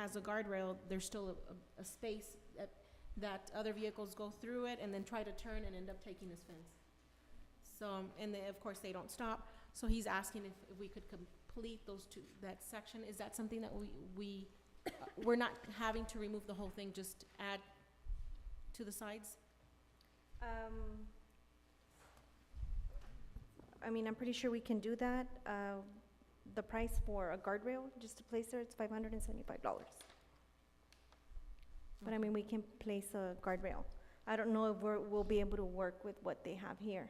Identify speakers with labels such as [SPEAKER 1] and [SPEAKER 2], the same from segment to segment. [SPEAKER 1] has a guardrail, there's still a, a space that, that other vehicles go through it and then try to turn and end up taking this fence. So, um, and then, of course, they don't stop, so he's asking if, if we could complete those two, that section, is that something that we, we, uh, we're not having to remove the whole thing, just add to the sides?
[SPEAKER 2] Um, I mean, I'm pretty sure we can do that. Uh, The price for a guardrail, just to place there, it's five hundred and seventy-five dollars. But I mean, we can place a guardrail. I don't know if we're, we'll be able to work with what they have here.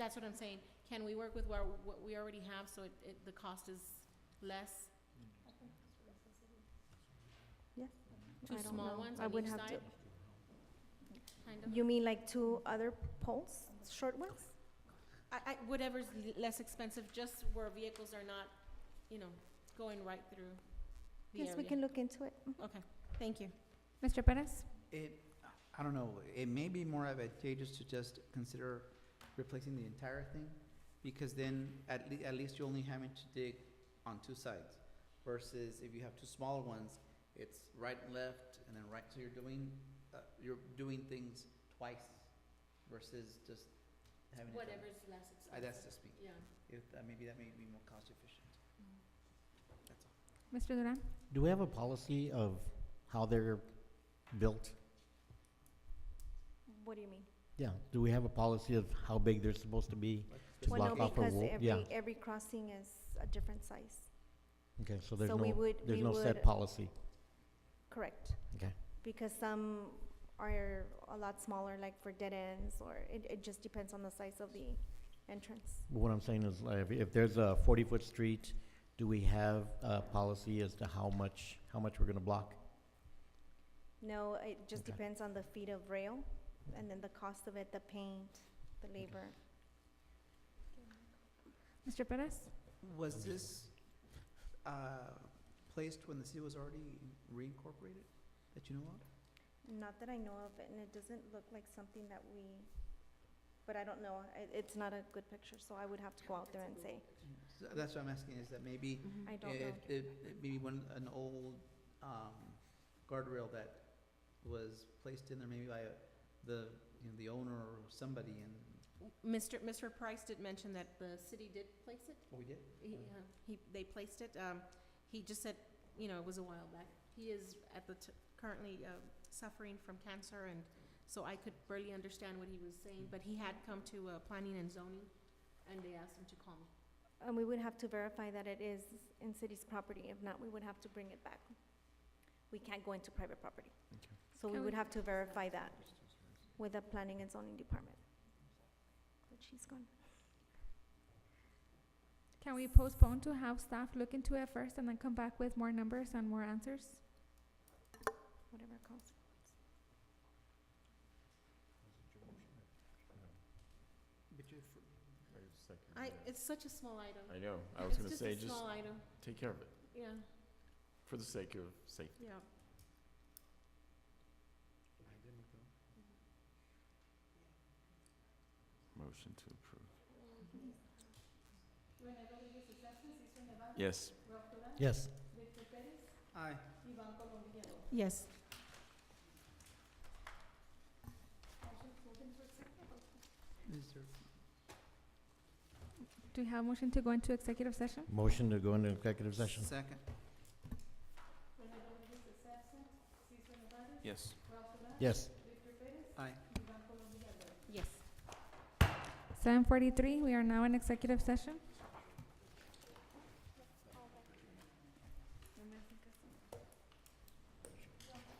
[SPEAKER 1] That's what I'm saying, can we work with what, what we already have, so it, it, the cost is less?
[SPEAKER 2] Yes.
[SPEAKER 1] Two
[SPEAKER 2] I don't
[SPEAKER 1] small
[SPEAKER 2] know.
[SPEAKER 1] ones
[SPEAKER 2] I
[SPEAKER 1] on
[SPEAKER 2] would
[SPEAKER 1] each
[SPEAKER 2] have to-
[SPEAKER 1] side? Kind of?
[SPEAKER 2] You mean like two other poles, short ones?
[SPEAKER 1] I, I, whatever's l- less expensive, just where vehicles are not, you know, going right through the area.
[SPEAKER 2] Yes, we can look into it.
[SPEAKER 1] Okay, thank you.
[SPEAKER 3] Mr. Perez?
[SPEAKER 4] It, I don't know, it may be more advantageous to just consider replacing the entire thing, because then at le- at least you're only having to dig on two sides, versus if you have two smaller ones, it's right and left, and then right, so you're doing, uh, you're doing things twice, versus just having it done.
[SPEAKER 1] Whatever's less
[SPEAKER 4] Uh,
[SPEAKER 1] expensive.
[SPEAKER 4] that's just me,
[SPEAKER 1] Yeah.
[SPEAKER 4] if, uh, maybe that may be more cost efficient, that's all.
[SPEAKER 3] Mr. Duran?
[SPEAKER 5] Do we have a policy of how they're built?
[SPEAKER 2] What do you mean?
[SPEAKER 5] Yeah, do we have a policy of how big they're supposed to be? To
[SPEAKER 2] Well, no,
[SPEAKER 5] block off a
[SPEAKER 2] because
[SPEAKER 5] wall, yeah.
[SPEAKER 2] every, every crossing is a different size.
[SPEAKER 5] Okay, so there's
[SPEAKER 2] So we
[SPEAKER 5] no,
[SPEAKER 2] would-
[SPEAKER 5] there's
[SPEAKER 2] we
[SPEAKER 5] no
[SPEAKER 2] would-
[SPEAKER 5] set policy.
[SPEAKER 2] Correct.
[SPEAKER 5] Okay.
[SPEAKER 2] Because some are a lot smaller, like for dead ends, or it, it just depends on the size of the entrance.
[SPEAKER 5] But What I'm saying is, like, if, if there's a forty-foot street, do we have a policy as to how much, how much we're gonna block?
[SPEAKER 2] No, it just
[SPEAKER 5] Okay.
[SPEAKER 2] depends on the feet of rail, and then the cost of it, the paint, the labor.
[SPEAKER 3] Mr. Perez?
[SPEAKER 4] Was this, uh, placed when the city was already reincorporated, that you know of?
[SPEAKER 2] Not that I know of, and it doesn't look like something that we, but I don't know, it, it's not a good picture, so I would have to go out there and say,
[SPEAKER 4] So That's what I'm asking, is that maybe,
[SPEAKER 2] I don't know.
[SPEAKER 4] it, it, it maybe one, an old, um, guardrail that was placed in there maybe by uh, the, you know, the owner or somebody and,
[SPEAKER 1] Mr. Mr. Price did mention that the city did place it.
[SPEAKER 4] oh, we did?
[SPEAKER 1] He, uh, he, they placed it. Um, he just said, you know, it was a while back. He is at the, t- currently, uh, suffering from cancer and so I could barely understand what he was saying, but he had come to, uh, planning and zoning and they asked him to call me.
[SPEAKER 2] And we would have to verify that it is in city's property. If not, we would have to bring it back. We can't go into private property.
[SPEAKER 5] Okay.
[SPEAKER 2] So we
[SPEAKER 3] Can
[SPEAKER 2] would
[SPEAKER 3] we-
[SPEAKER 2] have to verify that with the planning and zoning department. But she's gone.
[SPEAKER 3] Can we postpone to have staff look into it first and then come back with more numbers and more answers?
[SPEAKER 2] whatever it costs.
[SPEAKER 4] But you, for-
[SPEAKER 1] I, it's such a small item.
[SPEAKER 6] I know, I was gonna say,
[SPEAKER 1] It's just a
[SPEAKER 6] just
[SPEAKER 1] small item,
[SPEAKER 6] take care of it,
[SPEAKER 1] yeah,
[SPEAKER 6] for the sake of safety.
[SPEAKER 1] yeah.
[SPEAKER 6] Motion to approve. Yes.
[SPEAKER 5] Yes.
[SPEAKER 4] aye.
[SPEAKER 1] Yes.
[SPEAKER 4] Is there-
[SPEAKER 3] Do we have a motion to go into executive session?
[SPEAKER 5] Motion to go into executive session.
[SPEAKER 4] Second,
[SPEAKER 6] Yes.
[SPEAKER 5] Yes.
[SPEAKER 4] aye.
[SPEAKER 1] Yes.
[SPEAKER 3] Seven forty-three, we are now in executive session.